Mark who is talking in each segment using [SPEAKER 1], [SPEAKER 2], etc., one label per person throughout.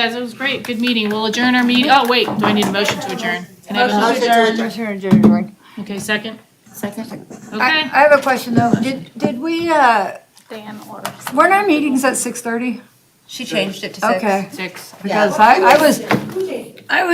[SPEAKER 1] Guys, it was great. Good meeting. We'll adjourn our meeting. Oh, wait, do I need a motion to adjourn? Can I have a
[SPEAKER 2] Motion
[SPEAKER 1] motion?
[SPEAKER 2] to adjourn.
[SPEAKER 1] Okay, second?
[SPEAKER 2] Second.
[SPEAKER 1] Okay.
[SPEAKER 3] I, I have a question though. Did, did we, uh,
[SPEAKER 4] Dan or
[SPEAKER 3] weren't our meetings at six thirty?
[SPEAKER 5] She changed it to six.
[SPEAKER 3] Okay,
[SPEAKER 1] Six.
[SPEAKER 3] because I, I was, I was,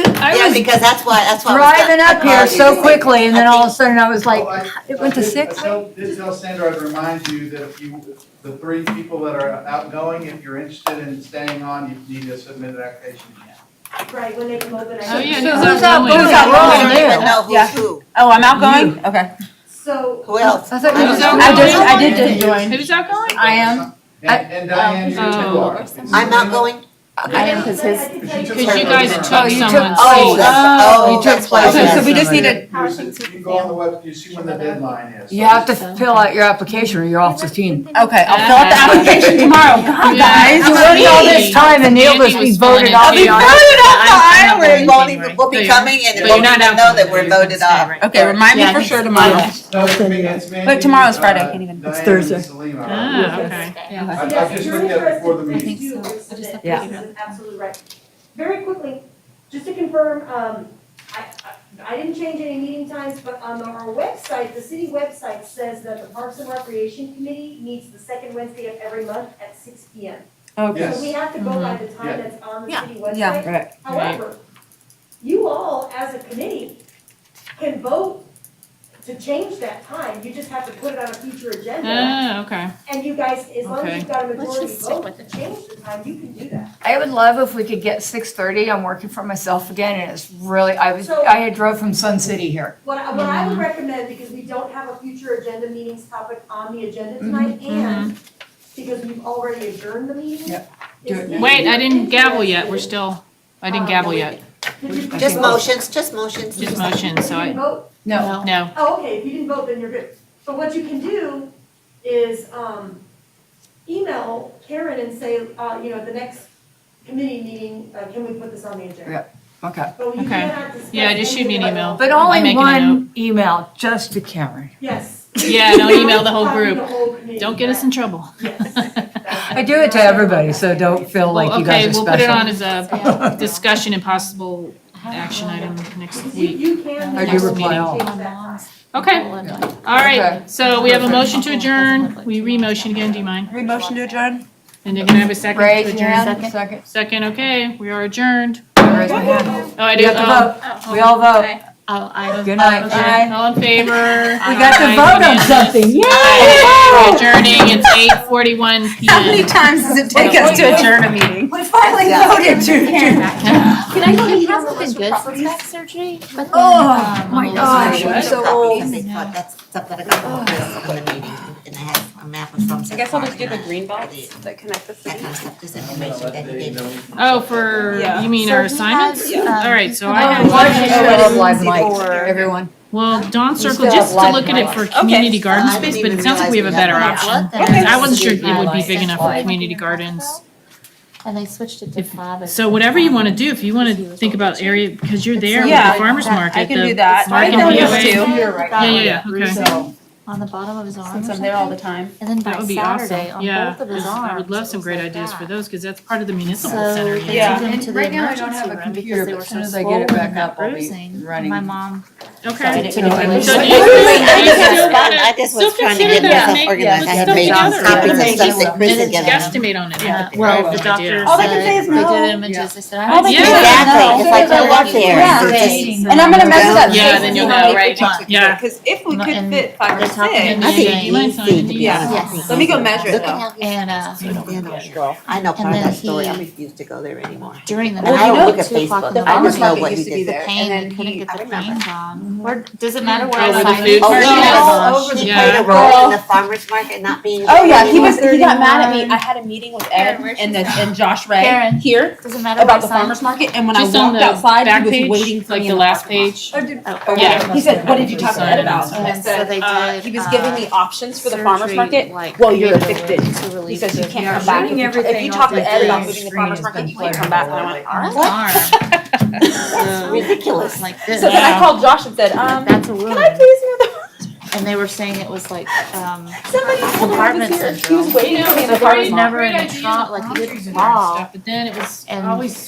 [SPEAKER 3] I
[SPEAKER 2] Yeah,
[SPEAKER 3] was
[SPEAKER 2] because that's why, that's why. I was
[SPEAKER 3] driving up here so quickly and then all of a sudden I was
[SPEAKER 6] Oh,
[SPEAKER 3] like,
[SPEAKER 6] I-
[SPEAKER 3] it went to
[SPEAKER 6] I did-
[SPEAKER 3] six?
[SPEAKER 6] I tell- did tell Sandra I'd remind you that if you, the three people that are outgoing, if you're interested in staying on, you need to submit an application again.
[SPEAKER 7] Right, when they come over,
[SPEAKER 1] Oh,
[SPEAKER 7] I.
[SPEAKER 1] yeah.
[SPEAKER 3] So
[SPEAKER 1] who's
[SPEAKER 3] who's out-
[SPEAKER 1] outgoing?
[SPEAKER 3] who's out-
[SPEAKER 2] I don't
[SPEAKER 3] Yeah.
[SPEAKER 2] even know who's who.
[SPEAKER 5] Oh, I'm outgoing? Okay.
[SPEAKER 7] So.
[SPEAKER 2] Who else?
[SPEAKER 3] I thought you
[SPEAKER 1] I
[SPEAKER 3] just-
[SPEAKER 1] was out
[SPEAKER 3] I just,
[SPEAKER 1] going.
[SPEAKER 3] I did just join.
[SPEAKER 1] Who's outgoing?
[SPEAKER 3] I am. I-
[SPEAKER 6] And and Diane, you too
[SPEAKER 1] Oh.
[SPEAKER 6] are.
[SPEAKER 2] I'm outgoing?
[SPEAKER 3] I am,
[SPEAKER 7] because his.
[SPEAKER 1] Because you guys
[SPEAKER 6] took
[SPEAKER 3] Oh, you
[SPEAKER 1] took
[SPEAKER 3] took-
[SPEAKER 1] someone's
[SPEAKER 3] oh,
[SPEAKER 1] seat.
[SPEAKER 2] Oh,
[SPEAKER 3] You took
[SPEAKER 2] that's why
[SPEAKER 3] place.
[SPEAKER 2] I
[SPEAKER 5] Okay,
[SPEAKER 2] said
[SPEAKER 5] so we just
[SPEAKER 2] somebody.
[SPEAKER 5] need to,
[SPEAKER 6] You go on the web, you see when the deadline is.
[SPEAKER 3] You have to fill out your application or you're off the team.
[SPEAKER 5] okay, I'll fill out the application tomorrow. God,
[SPEAKER 1] Yeah.
[SPEAKER 5] guys.
[SPEAKER 3] You waited all this time and
[SPEAKER 1] Andy
[SPEAKER 3] needless we
[SPEAKER 1] was
[SPEAKER 3] voted
[SPEAKER 1] fine.
[SPEAKER 3] off.
[SPEAKER 5] I'll be
[SPEAKER 1] Yeah.
[SPEAKER 5] voted off the
[SPEAKER 1] Yeah.
[SPEAKER 5] island.
[SPEAKER 2] We won't even, we'll be coming
[SPEAKER 1] But
[SPEAKER 2] and
[SPEAKER 1] you're
[SPEAKER 2] we'll
[SPEAKER 1] not
[SPEAKER 2] even
[SPEAKER 1] out.
[SPEAKER 2] know that we're voted off.
[SPEAKER 5] Okay, remind me for sure
[SPEAKER 6] No,
[SPEAKER 5] tomorrow.
[SPEAKER 6] it's me, it's Mandy,
[SPEAKER 5] But tomorrow's Friday,
[SPEAKER 6] uh,
[SPEAKER 5] I can't even-
[SPEAKER 6] Diane and
[SPEAKER 3] Thursday.
[SPEAKER 6] Selena.
[SPEAKER 1] Ah, okay.
[SPEAKER 6] I I just looked at it before the meeting.
[SPEAKER 7] Yeah. An absolute right. Very quickly, just to confirm, um, I, I, I didn't change any meeting times, but on our website, the city website says that the Parks and Recreation Committee meets the second Wednesday of every month at six P M. So we
[SPEAKER 6] Yes,
[SPEAKER 7] have to go by the time that's on the
[SPEAKER 5] Yeah.
[SPEAKER 7] city website.
[SPEAKER 5] Yeah.
[SPEAKER 3] Right.
[SPEAKER 7] However, you all, as a committee, can vote to change that time, you just have to put it on a future agenda.
[SPEAKER 1] Ah, okay.
[SPEAKER 7] And you guys, as long as you've got a majority
[SPEAKER 4] just stick
[SPEAKER 7] vote
[SPEAKER 4] with
[SPEAKER 7] to
[SPEAKER 4] it.
[SPEAKER 7] change the time, you can do that.
[SPEAKER 3] I would love if we could get six thirty. I'm working for myself again and it's really, I was, I had drove from Sun City here.
[SPEAKER 7] What I, what
[SPEAKER 1] Mm-hmm.
[SPEAKER 7] I would recommend, because we don't have a future agenda meetings topic on the agenda tonight,
[SPEAKER 1] Mm-hmm.
[SPEAKER 7] and because we've already adjourned the meeting.
[SPEAKER 3] Yep. Do it
[SPEAKER 7] is
[SPEAKER 3] now.
[SPEAKER 1] Wait, I didn't gavel yet. We're still, I didn't
[SPEAKER 7] Um,
[SPEAKER 1] gavel yet.
[SPEAKER 7] Did you- did
[SPEAKER 2] Just
[SPEAKER 7] you vote?
[SPEAKER 2] motions, just motions.
[SPEAKER 1] Just motion, so
[SPEAKER 7] You
[SPEAKER 1] I,
[SPEAKER 7] didn't vote?
[SPEAKER 3] No,
[SPEAKER 1] no.
[SPEAKER 7] Oh, okay, if you didn't vote, then you're good. But what you can do is, um, email Karen and say, uh, you know, the next committee meeting, uh, can we put this on the agenda?
[SPEAKER 3] okay.
[SPEAKER 7] But you
[SPEAKER 1] Okay.
[SPEAKER 7] cannot discuss
[SPEAKER 1] Yeah, just shoot me an
[SPEAKER 7] anything
[SPEAKER 1] email.
[SPEAKER 7] about-
[SPEAKER 3] But
[SPEAKER 1] I'm
[SPEAKER 3] only
[SPEAKER 1] making a
[SPEAKER 3] one email, just to Karen.
[SPEAKER 7] Yes.
[SPEAKER 1] Yeah, don't email the whole
[SPEAKER 7] Copy
[SPEAKER 1] group.
[SPEAKER 7] whole committee.
[SPEAKER 1] Don't get us in trouble.
[SPEAKER 7] Yes.
[SPEAKER 3] I do it to everybody, so don't feel like
[SPEAKER 1] Well,
[SPEAKER 3] you
[SPEAKER 1] Okay,
[SPEAKER 3] guys are
[SPEAKER 1] we'll put it on
[SPEAKER 3] special.
[SPEAKER 1] as a discussion and possible action item next
[SPEAKER 7] You,
[SPEAKER 1] week.
[SPEAKER 7] you can.
[SPEAKER 3] I do
[SPEAKER 7] next
[SPEAKER 3] reply
[SPEAKER 7] meeting
[SPEAKER 3] all.
[SPEAKER 7] change that time.
[SPEAKER 1] Okay,
[SPEAKER 4] Oh,
[SPEAKER 1] all
[SPEAKER 3] Okay.
[SPEAKER 1] right. So we have a motion to adjourn. We re-motion again, do you mind?
[SPEAKER 5] Motion to adjourn?
[SPEAKER 1] And you're gonna have a second to
[SPEAKER 3] Raise your
[SPEAKER 1] adjourn?
[SPEAKER 3] hand, second.
[SPEAKER 1] Second, okay, we are adjourned.
[SPEAKER 3] Raise my hand.
[SPEAKER 1] Oh, I do,
[SPEAKER 3] You
[SPEAKER 1] oh,
[SPEAKER 3] have to vote. We all vote.
[SPEAKER 4] Oh, I.
[SPEAKER 3] Good night.
[SPEAKER 1] okay, all in favor?
[SPEAKER 3] We got to vote on something.
[SPEAKER 1] We're
[SPEAKER 3] Yay!
[SPEAKER 1] Adjourning, it's eight forty-one P
[SPEAKER 5] How many
[SPEAKER 1] M.
[SPEAKER 5] times does it take us to adjourn a meeting?
[SPEAKER 3] We finally
[SPEAKER 2] Yeah.
[SPEAKER 3] voted to.
[SPEAKER 4] Uh, Can I go get something good since back surgery? But then,
[SPEAKER 3] Oh, my
[SPEAKER 4] um, I'm a little
[SPEAKER 3] gosh,
[SPEAKER 4] bit-
[SPEAKER 3] I'm so old.
[SPEAKER 2] Properties, they thought That's something I got from the meeting, and I had a map of some.
[SPEAKER 8] I guess I'll just do the green box that connect the
[SPEAKER 2] That
[SPEAKER 8] city.
[SPEAKER 2] kind of stuff, this
[SPEAKER 6] I'm gonna
[SPEAKER 2] information
[SPEAKER 6] let
[SPEAKER 2] that he
[SPEAKER 6] Dave
[SPEAKER 2] did.
[SPEAKER 6] know.
[SPEAKER 1] Oh, for,
[SPEAKER 8] Yeah.
[SPEAKER 1] you mean our
[SPEAKER 4] So he has,
[SPEAKER 1] assignments?
[SPEAKER 4] um,
[SPEAKER 1] All right, so I
[SPEAKER 4] Oh,
[SPEAKER 1] have
[SPEAKER 4] why
[SPEAKER 1] one.
[SPEAKER 3] Why
[SPEAKER 4] did you
[SPEAKER 3] do you
[SPEAKER 4] show
[SPEAKER 3] have
[SPEAKER 4] it
[SPEAKER 3] live
[SPEAKER 2] easy
[SPEAKER 3] mics,
[SPEAKER 2] for-
[SPEAKER 3] everyone?
[SPEAKER 1] Well, Dawn
[SPEAKER 3] still
[SPEAKER 1] Circle,
[SPEAKER 3] have
[SPEAKER 1] just to
[SPEAKER 3] live
[SPEAKER 1] look at it
[SPEAKER 3] mics.
[SPEAKER 1] for
[SPEAKER 8] Okay.
[SPEAKER 1] community garden
[SPEAKER 2] I didn't
[SPEAKER 1] space, but it
[SPEAKER 2] even
[SPEAKER 1] sounds like
[SPEAKER 2] realize
[SPEAKER 1] we have a
[SPEAKER 2] we
[SPEAKER 1] better
[SPEAKER 2] had
[SPEAKER 4] Yeah,
[SPEAKER 2] that.
[SPEAKER 1] option.
[SPEAKER 4] what the-
[SPEAKER 5] Okay.
[SPEAKER 1] I wasn't sure it
[SPEAKER 4] Yeah,
[SPEAKER 1] would be
[SPEAKER 4] like-
[SPEAKER 1] big enough for
[SPEAKER 4] Yeah.
[SPEAKER 1] community gardens.
[SPEAKER 4] And they switched it to five. um,
[SPEAKER 1] So whatever you want to do, if you want to think about area, because you're there with
[SPEAKER 5] Yeah,
[SPEAKER 1] the farmer's
[SPEAKER 4] I- I
[SPEAKER 1] market.
[SPEAKER 5] I can
[SPEAKER 1] the-
[SPEAKER 5] do that.
[SPEAKER 1] Mark
[SPEAKER 5] I
[SPEAKER 1] and
[SPEAKER 5] noticed
[SPEAKER 1] Leeway.
[SPEAKER 5] too,
[SPEAKER 1] Yeah, yeah, yeah, okay.
[SPEAKER 5] so,
[SPEAKER 4] On the bottom of his arm or
[SPEAKER 5] since I'm there all the
[SPEAKER 4] something?
[SPEAKER 5] time.
[SPEAKER 4] And then
[SPEAKER 1] That
[SPEAKER 4] by
[SPEAKER 1] would be
[SPEAKER 4] Saturday,
[SPEAKER 1] awesome.
[SPEAKER 4] on
[SPEAKER 1] Yeah,
[SPEAKER 4] both of his
[SPEAKER 1] 'cause
[SPEAKER 4] arms.
[SPEAKER 1] I would love
[SPEAKER 4] it
[SPEAKER 1] some
[SPEAKER 4] was
[SPEAKER 1] great
[SPEAKER 4] like
[SPEAKER 1] ideas
[SPEAKER 4] that.
[SPEAKER 1] for those, because that's part of the
[SPEAKER 4] So
[SPEAKER 1] municipal center. you
[SPEAKER 4] they took
[SPEAKER 1] know?
[SPEAKER 5] Yeah.
[SPEAKER 4] him to the
[SPEAKER 3] Right now I don't have
[SPEAKER 4] emergency
[SPEAKER 3] a
[SPEAKER 4] room
[SPEAKER 3] computer,
[SPEAKER 4] because they
[SPEAKER 3] but
[SPEAKER 4] were
[SPEAKER 3] as
[SPEAKER 4] so
[SPEAKER 3] soon as I get it
[SPEAKER 4] swollen
[SPEAKER 3] back
[SPEAKER 4] and
[SPEAKER 3] up, I'll be
[SPEAKER 4] bruising.
[SPEAKER 3] running.
[SPEAKER 4] My mom.
[SPEAKER 1] Okay. So do you-
[SPEAKER 2] Really,
[SPEAKER 4] So I didn't-
[SPEAKER 2] I
[SPEAKER 1] you
[SPEAKER 2] just was
[SPEAKER 1] still
[SPEAKER 2] fun.
[SPEAKER 1] gotta-
[SPEAKER 2] I just was
[SPEAKER 1] still
[SPEAKER 2] trying to
[SPEAKER 1] consider
[SPEAKER 2] get
[SPEAKER 1] that.
[SPEAKER 2] myself
[SPEAKER 1] Make-
[SPEAKER 2] organized.
[SPEAKER 1] put
[SPEAKER 2] I had
[SPEAKER 1] stuff
[SPEAKER 2] made
[SPEAKER 1] together.
[SPEAKER 2] copies of
[SPEAKER 3] Organization.
[SPEAKER 2] stuff that Chris had given me.
[SPEAKER 1] Guesstimate on it.
[SPEAKER 4] Uh,
[SPEAKER 1] Yeah. I
[SPEAKER 4] Well,
[SPEAKER 1] have
[SPEAKER 4] the
[SPEAKER 1] no idea.
[SPEAKER 4] doctor
[SPEAKER 5] All they can
[SPEAKER 4] said-
[SPEAKER 5] say is no.
[SPEAKER 4] They did images, I said, I
[SPEAKER 5] All
[SPEAKER 4] don't
[SPEAKER 1] can say
[SPEAKER 4] think it's
[SPEAKER 5] they
[SPEAKER 2] Exactly,
[SPEAKER 4] no.
[SPEAKER 2] it's like they'll walk there.
[SPEAKER 5] Yeah.
[SPEAKER 2] They're just-
[SPEAKER 5] And I'm gonna mess it up.
[SPEAKER 1] Yeah, then you'll know, right? Yeah.
[SPEAKER 8] Because if we
[SPEAKER 4] Not in-
[SPEAKER 8] could fit five or six,
[SPEAKER 4] they're talking in
[SPEAKER 2] I
[SPEAKER 1] Yeah, you might
[SPEAKER 2] think
[SPEAKER 1] sign in.
[SPEAKER 2] easy to be
[SPEAKER 8] Yeah.
[SPEAKER 2] honest.
[SPEAKER 4] Yes.
[SPEAKER 8] let me go measure it
[SPEAKER 2] Look at
[SPEAKER 8] though.
[SPEAKER 2] how
[SPEAKER 4] And, uh,
[SPEAKER 2] he's- I know part of
[SPEAKER 4] then
[SPEAKER 2] that story.
[SPEAKER 4] he-
[SPEAKER 2] I refuse to go there anymore.
[SPEAKER 4] during the
[SPEAKER 2] Well,
[SPEAKER 4] night.
[SPEAKER 2] I don't
[SPEAKER 4] at
[SPEAKER 2] look at
[SPEAKER 4] two o'clock in
[SPEAKER 2] Facebook.
[SPEAKER 4] the
[SPEAKER 2] I
[SPEAKER 4] morning,
[SPEAKER 2] just know
[SPEAKER 8] It
[SPEAKER 2] what
[SPEAKER 8] used
[SPEAKER 2] you
[SPEAKER 8] to be
[SPEAKER 2] did.
[SPEAKER 8] there,
[SPEAKER 4] Pain,
[SPEAKER 8] and
[SPEAKER 4] you
[SPEAKER 8] then
[SPEAKER 4] couldn't
[SPEAKER 8] he,
[SPEAKER 4] get
[SPEAKER 2] I
[SPEAKER 4] the
[SPEAKER 2] remember.
[SPEAKER 4] pain gone. Where, does it matter where
[SPEAKER 1] Oh,
[SPEAKER 4] I
[SPEAKER 1] with the
[SPEAKER 4] sign?
[SPEAKER 1] food
[SPEAKER 4] Oh,
[SPEAKER 1] cart?
[SPEAKER 4] yeah.
[SPEAKER 2] Oh, she
[SPEAKER 1] Yeah.
[SPEAKER 2] played a role in the farmer's market not being.
[SPEAKER 5] Oh yeah, he
[SPEAKER 2] anymore.
[SPEAKER 5] was. He got mad at me. I had a meeting with Ed
[SPEAKER 4] Karen, where's
[SPEAKER 5] and
[SPEAKER 4] she
[SPEAKER 5] the,
[SPEAKER 4] from?
[SPEAKER 5] and Josh Ray
[SPEAKER 4] Karen.
[SPEAKER 5] here
[SPEAKER 4] Doesn't matter where I
[SPEAKER 5] about the
[SPEAKER 4] sign.
[SPEAKER 5] farmers market, and when
[SPEAKER 1] Just
[SPEAKER 5] I
[SPEAKER 1] on
[SPEAKER 5] walked
[SPEAKER 1] the
[SPEAKER 5] outside,
[SPEAKER 1] back
[SPEAKER 5] he was
[SPEAKER 1] page,
[SPEAKER 5] waiting for
[SPEAKER 1] like
[SPEAKER 5] me
[SPEAKER 1] the
[SPEAKER 5] in
[SPEAKER 1] last
[SPEAKER 5] parking lot.
[SPEAKER 1] page.
[SPEAKER 5] Or did-
[SPEAKER 4] Oh,
[SPEAKER 5] or
[SPEAKER 1] Yeah.
[SPEAKER 5] whatever. He said, "What did you talk to Ed about?" And I
[SPEAKER 4] And so they
[SPEAKER 5] said, uh,
[SPEAKER 4] did,
[SPEAKER 5] "He was giving me options for the farmers
[SPEAKER 4] surgery,
[SPEAKER 5] market."
[SPEAKER 4] like,
[SPEAKER 5] Well, you're
[SPEAKER 4] regular
[SPEAKER 5] addicted.
[SPEAKER 4] to
[SPEAKER 5] He
[SPEAKER 4] relief
[SPEAKER 5] says you
[SPEAKER 4] food.
[SPEAKER 5] can't come back. If you, if you talk to Ed about moving the farmers market, you can't come back. And I went, "All right."
[SPEAKER 4] Arm. So,
[SPEAKER 2] Ridiculous.
[SPEAKER 4] Like this.
[SPEAKER 5] So then I called Josh and said, um,
[SPEAKER 4] That's a
[SPEAKER 5] "Can I
[SPEAKER 4] wound.
[SPEAKER 5] please know the
[SPEAKER 4] And they were saying it was like, um,
[SPEAKER 5] somebody told me he
[SPEAKER 4] Compartment
[SPEAKER 5] was here? He
[SPEAKER 4] syndrome.
[SPEAKER 5] was waiting for me in the
[SPEAKER 1] There
[SPEAKER 5] farmers
[SPEAKER 1] is
[SPEAKER 4] never
[SPEAKER 1] great
[SPEAKER 4] in a
[SPEAKER 1] ideas
[SPEAKER 4] trial,
[SPEAKER 1] of
[SPEAKER 4] like, you
[SPEAKER 1] boundaries
[SPEAKER 4] didn't
[SPEAKER 1] and
[SPEAKER 4] fall.
[SPEAKER 1] stuff, But then it was
[SPEAKER 4] And
[SPEAKER 1] always